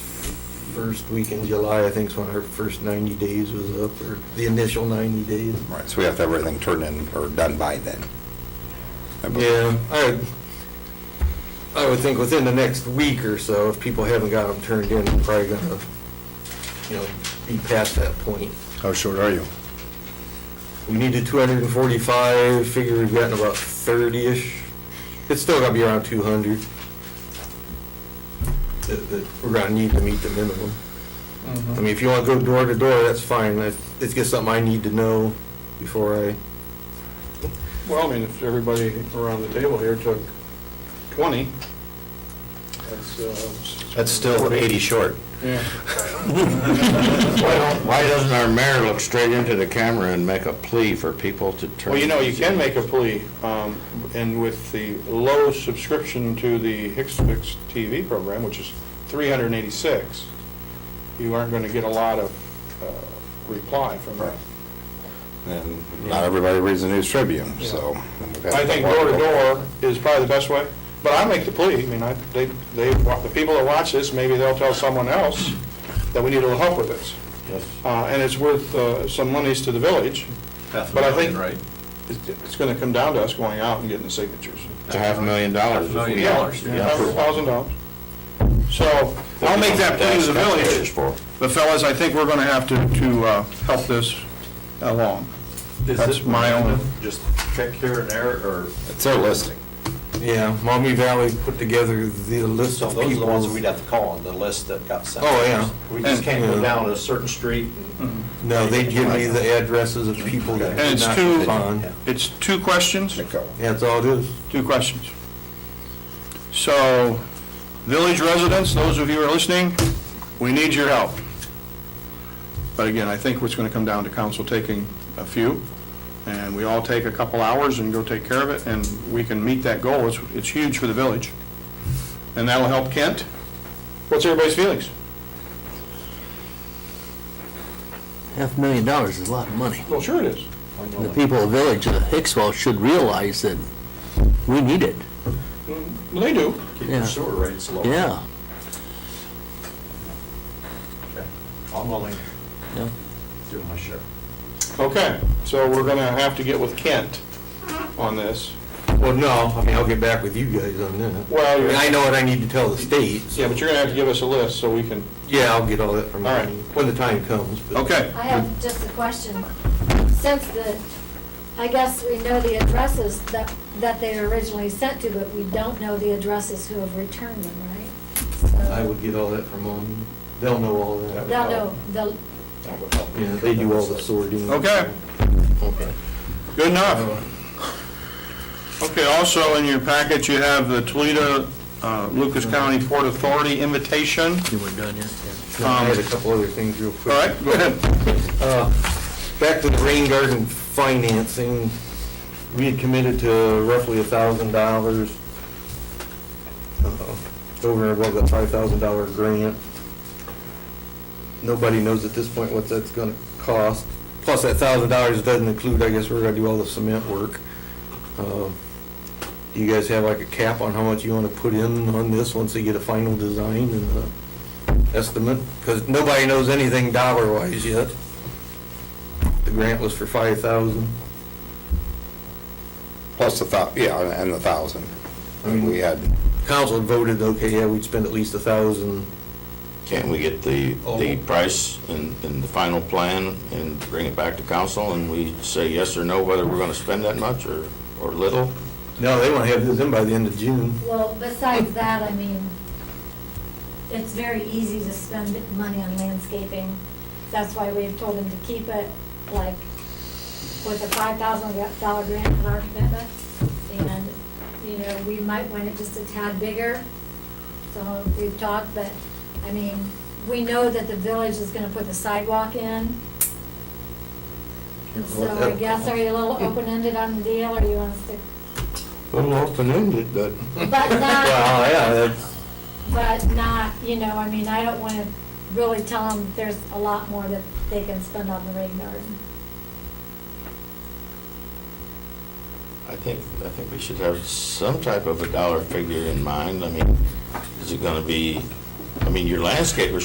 first week in July, I think, is when our first 90 days was up, or the initial 90 days. Right, so we have to have everything turned in or done by then. I believe. Yeah, I, I would think within the next week or so, if people haven't got them turned in, they're probably gonna, you know, be past that point. How short are you? We needed 245, figure we've gotten about 30-ish. It's still gonna be around 200. That, that we're gonna need to meet the minimum. I mean, if you wanna go door to door, that's fine. That's- It's just something I need to know before I, Well, I mean, if everybody around the table here took 20, that's... uh, That's still 80 short. Yeah. Why don't- why doesn't our mayor look straight into the camera and make a plea for people to turn? Well, you know, you can make a plea, um, and with the low subscription to the Hicks Fix TV program, which is 386, you aren't going to get a lot of uh, reply from that. And not everybody reads the News Tribune, so. I think door to door is probably the best way, but I make the plea, I mean, I, they, they, the people that watch this, maybe they'll tell someone else that we need a little help with this. Yes. Uh, and it's worth, uh, some monies to the village. But I think it's, it's gonna come down to us going out and getting the signatures. It's a half a million dollars. if we- Million dollars, Yeah, Hundred thousand dollars. So, I'll make that plea That's to the taxpayers village, for. but fellas, I think we're gonna have to, to, uh, help this along. That's my own. Just check here and there, or? It's their listing. yeah, Maumee Valley put together the list So Oh, of those are the ones that we'd people. have to call on, the list that got sent. Oh, yeah. We just can't Yeah. Mm-hmm. go down a certain street and. No, they give me the addresses of people that And did it's not two- respond. It's two questions? That's all it is. Two questions. So, village residents, those of you who are listening, we need your help. But again, I think it's going to come down to council taking a few, and we all take a couple hours and go take care of it, and we can meet that goal. It's, it's huge for the village. And that'll help Kent. What's everybody's feelings? Half a million dollars is a lot of money. Well, sure it is. The people of the village of Hicksville should realize that we need it. They do. Keep your Yeah. sewer rates low. Yeah. Okay. I'm willing Yeah. to do my share. Okay, so we're going to have to get with Kent on this. Well, no, I mean, I'll get back with you guys on that. Well, I mean, I you're- know what I need to tell the states. yeah, but you're going to have to give us a list so we can Yeah, I'll get all that from All right. you when the time comes. but- Okay. I have just a question. Since the, I guess we know the addresses that, that they were originally sent to, but we don't know the addresses who have returned them, right? So- I would get all that from them. They'll know all that. They'll know, they'll, That would help. Yeah, they do all the sorting. Okay. Okay. Good enough. Okay, also in your packet, you have the Toledo uh, Lucas County Port Authority invitation. You weren't done yet? Now, I had a couple other things real All quick. right, go ahead. Uh, Back to the rain garden financing, we had committed to roughly a thousand dollars uh, over and above that five thousand dollar grant. Nobody knows at this point what that's gonna cost. Plus, that thousand dollars doesn't include, I guess, we're gonna do all the cement work. Uh, Do you guys have like a cap on how much you wanna put in on this once they get a final design and uh estimate? Because nobody knows anything dollar-wise yet. The grant was for five thousand. Plus the thou, yeah, and the thousand. Mm-hmm. And we had, Council voted, okay, yeah, we'd spend at least a thousand. Can't we get the, Oh. the price and, and the final plan and bring it back to council and we say yes or no whether we're gonna spend that much or, or little? No, they want to have this in by the end of June. well, besides that, I mean, it's very easy to spend money on landscaping. That's why we've told them to keep it, like, with a five thousand dollar grant in our commitment. And, you know, we might want it just a tad bigger, so we've talked, but, I mean, we know that the village is gonna put the sidewalk in. So I guess, are you a little open-ended on the deal, or you want us to, A little open-ended, but. but not. Well, yeah, that's, but not, you know, I mean, I don't want to really tell them there's a lot more that they can spend on the rain garden. I think, I think we should have some type of a dollar figure in mind. I mean, is it gonna be, I mean, your landscaper